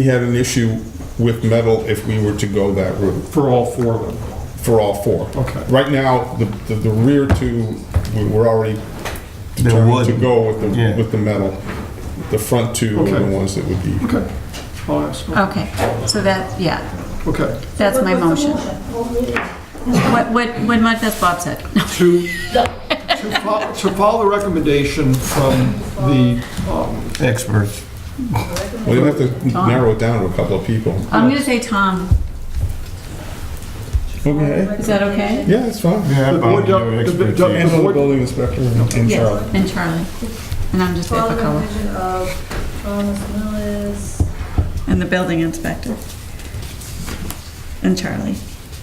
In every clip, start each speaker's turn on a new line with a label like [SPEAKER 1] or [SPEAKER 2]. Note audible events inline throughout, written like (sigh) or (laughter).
[SPEAKER 1] we had an issue with metal if we were to go that route
[SPEAKER 2] for all four of them.
[SPEAKER 1] for all four.
[SPEAKER 2] Okay.
[SPEAKER 1] Right now, the, the, the rear two, we were already determined to
[SPEAKER 3] wood.
[SPEAKER 1] go with the,
[SPEAKER 3] Yeah.
[SPEAKER 1] with the metal. The front two are
[SPEAKER 2] Okay.
[SPEAKER 1] the ones that would be.
[SPEAKER 2] Okay, I'll ask.
[SPEAKER 4] Okay, so that, yeah,
[SPEAKER 2] Okay,
[SPEAKER 4] that's my motion. What, what, what much as Bob said.
[SPEAKER 2] to, to follow, to follow the recommendation from the, um,
[SPEAKER 3] experts.
[SPEAKER 1] Well, you have to narrow it down to a couple of people.
[SPEAKER 4] I'm gonna say Tom,
[SPEAKER 1] Okay.
[SPEAKER 4] is that okay?
[SPEAKER 1] Yeah, it's fine.
[SPEAKER 3] Yeah,
[SPEAKER 2] The board
[SPEAKER 3] Bob,
[SPEAKER 2] doc-
[SPEAKER 3] your
[SPEAKER 2] the- the-
[SPEAKER 3] expertise.
[SPEAKER 2] doc-
[SPEAKER 1] And the building inspector and Charlie.
[SPEAKER 4] Yes, and Charlie. And I'm just there
[SPEAKER 5] Follow
[SPEAKER 4] for
[SPEAKER 5] the
[SPEAKER 4] color.
[SPEAKER 5] vision of Thomas Millis,
[SPEAKER 4] And the building inspector. And Charlie,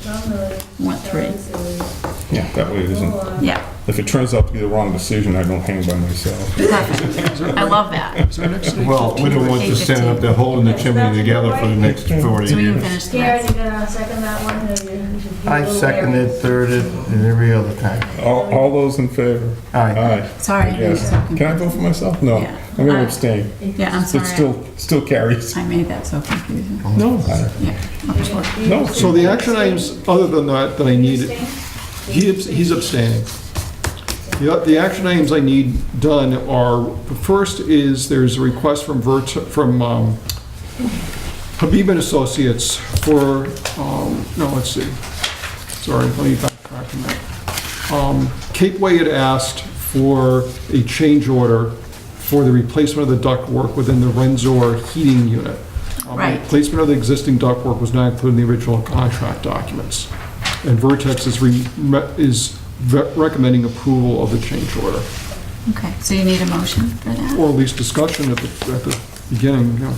[SPEAKER 5] John Millis.
[SPEAKER 4] want three.
[SPEAKER 5] Charles Seeley,
[SPEAKER 1] Yeah, that way it
[SPEAKER 5] Paul
[SPEAKER 1] isn't.
[SPEAKER 5] Lawrence,
[SPEAKER 4] Yeah,
[SPEAKER 1] If it turns out to be the wrong decision, I don't hang by myself.
[SPEAKER 4] perfect. I love that.
[SPEAKER 2] is there next thing?
[SPEAKER 3] Well, we don't want you standing up there holding the chimney together for the next 40
[SPEAKER 4] So we can
[SPEAKER 3] years.
[SPEAKER 4] finish the
[SPEAKER 5] Karen,
[SPEAKER 4] rest.
[SPEAKER 5] you gonna second that one, or you- you? should be a
[SPEAKER 3] I
[SPEAKER 5] little
[SPEAKER 3] seconded,
[SPEAKER 5] wary.
[SPEAKER 3] thirded, and every other time.
[SPEAKER 1] All, all those in favor?
[SPEAKER 3] Aye.
[SPEAKER 1] Aye.
[SPEAKER 4] Sorry. I was
[SPEAKER 1] Yes.
[SPEAKER 4] talking.
[SPEAKER 1] Can I vote for myself? No.
[SPEAKER 4] Yeah.
[SPEAKER 1] I'm
[SPEAKER 4] Aye.
[SPEAKER 1] gonna abstain.
[SPEAKER 4] Yeah, I'm
[SPEAKER 1] It
[SPEAKER 4] sorry.
[SPEAKER 1] still, still carries.
[SPEAKER 4] I made that so confusing.
[SPEAKER 1] No.
[SPEAKER 4] Yeah.
[SPEAKER 1] No.
[SPEAKER 2] So the action items, other than that, that I need, he abs- he's abstaining. The, the action items I need done are, the first is, there's a request from Vert, from um, Habib and Associates for, um, no, let's see, sorry, let me backtrack on that. Um, Cape Way had asked for a change order for the replacement of the ductwork within the Renzor heating unit. Um,
[SPEAKER 4] Right.
[SPEAKER 2] Replacement of the existing ductwork was not included in the original contract documents. And Vertex is, re- re- is ve- recommending approval of the change order,
[SPEAKER 4] Okay, so you need a motion for that?
[SPEAKER 2] or at least discussion at the, at the beginning, you know.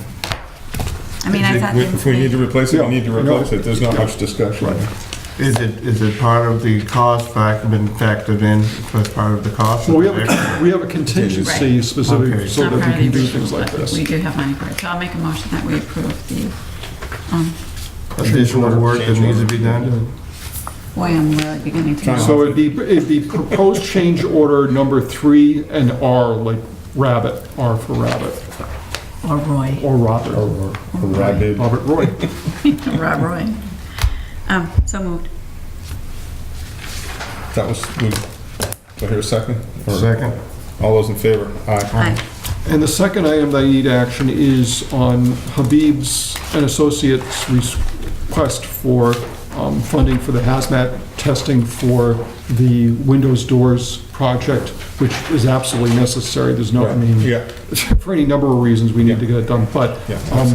[SPEAKER 4] I mean, I thought. they-
[SPEAKER 1] If we need to replace it, we need to
[SPEAKER 2] Yeah.
[SPEAKER 1] replace it. There's not much discussion.
[SPEAKER 3] Is it, is it part of the cost factor been factored in as part of the cost?
[SPEAKER 2] Well, we have, a- we have a contingency specific,
[SPEAKER 3] Okay.
[SPEAKER 2] so that
[SPEAKER 4] Not
[SPEAKER 2] we
[SPEAKER 4] part of the
[SPEAKER 2] can do
[SPEAKER 4] original,
[SPEAKER 2] things like
[SPEAKER 4] but
[SPEAKER 2] this.
[SPEAKER 4] We do have money for it, so I'll make a motion that we approve the, um,
[SPEAKER 3] Additional work that needs to be done?
[SPEAKER 4] boy, I'm really beginning to. know.
[SPEAKER 2] So it'd be, it'd be proposed change order number three and R, like rabbit, R for rabbit,
[SPEAKER 4] Or Roy,
[SPEAKER 2] or Robert,
[SPEAKER 1] Or rabid.
[SPEAKER 2] Robert Roy.
[SPEAKER 4] Rob Roy. Um, so moved.
[SPEAKER 1] That was, we- do I hear a second? Or-
[SPEAKER 3] Second?
[SPEAKER 1] All those in favor? Aye.
[SPEAKER 4] Aye.
[SPEAKER 2] And the second item that I need action is on Habib's and Associates' request for um, funding for the hazmat testing for the windows, doors project, which is absolutely necessary. There's no, I mean,
[SPEAKER 1] Yeah,
[SPEAKER 2] (laughs) for any number of reasons, we need to get it done, but,
[SPEAKER 1] Yeah,
[SPEAKER 2] um,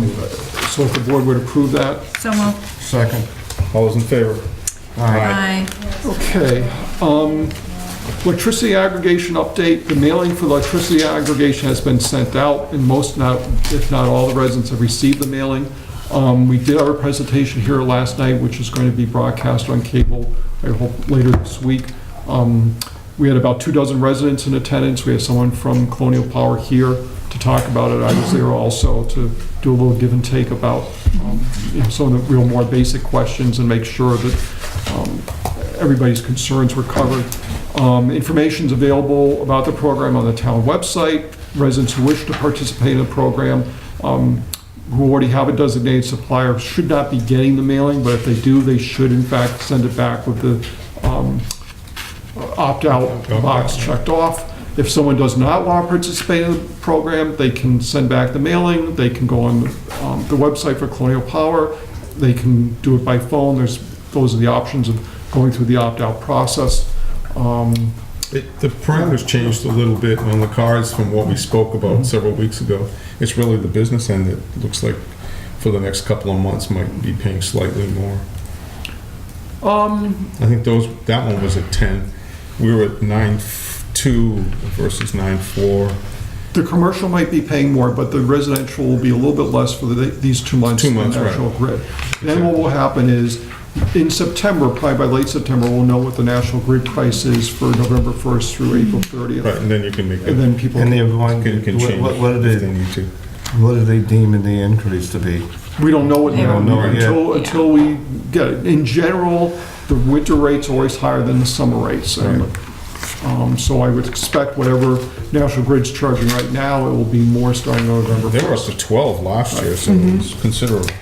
[SPEAKER 2] so if the board would approve that,
[SPEAKER 4] So moved.
[SPEAKER 3] Second.
[SPEAKER 1] all those in favor? Aye.
[SPEAKER 4] Aye.
[SPEAKER 2] okay. Um, Electricity aggregation update, the mailing for electricity aggregation has been sent out, and most, not if not all, the residents have received the mailing. Um, We did our presentation here last night, which is going to be broadcast on cable, I hope, later this week. Um, We had about two dozen residents in attendance, we had someone from Colonial Power here to talk about it, I was there also to do a little give and take about um, you know, some of the real more basic questions and make sure that um, everybody's concerns were covered. Um, Information's available about the program on the town website. Residents who wish to participate in the program, um, who already have a designated supplier, should not be getting the mailing, but if they do, they should in fact send it back with the um, opt-out box checked off. If someone does not want to participate in the program, they can send back the mailing, they can go on um, the website for Colonial Power, they can do it by phone, there's, those are the options of going through the opt-out process. Um,
[SPEAKER 1] It- The parameters changed a little bit on the cards from what we spoke about several weeks ago. It's really the business end that looks like for the next couple of months might be paying slightly more.
[SPEAKER 2] Um,
[SPEAKER 1] I think those, that one was at 10. We were at 9.2 versus 9.4.
[SPEAKER 2] The commercial might be paying more, but the residential will be a little bit less for the- these two months.
[SPEAKER 1] Two
[SPEAKER 2] than
[SPEAKER 1] months, right.
[SPEAKER 2] National Grid. Then what will happen is, in September, probably by late September, we'll know what the National Grid price is for November 1st through April 30th.
[SPEAKER 1] Right, and then you can make,
[SPEAKER 2] And
[SPEAKER 1] it-
[SPEAKER 2] then people,
[SPEAKER 3] And they have one,
[SPEAKER 1] you can
[SPEAKER 3] what-
[SPEAKER 1] change
[SPEAKER 3] what, what did
[SPEAKER 1] if they
[SPEAKER 3] they,
[SPEAKER 1] need to.
[SPEAKER 3] what did they deem in the increase to be?
[SPEAKER 2] we don't know it
[SPEAKER 4] They
[SPEAKER 2] now
[SPEAKER 4] don't
[SPEAKER 3] know it yet.
[SPEAKER 2] until, until we get it. In general, the winter rate's always higher than the summer rates. And Um, So I would expect whatever National Grid's charging right now, it will be more starting on November
[SPEAKER 1] They were up
[SPEAKER 2] 1st.
[SPEAKER 3] Mm-hmm.
[SPEAKER 1] to 12 last year, so it was considerable.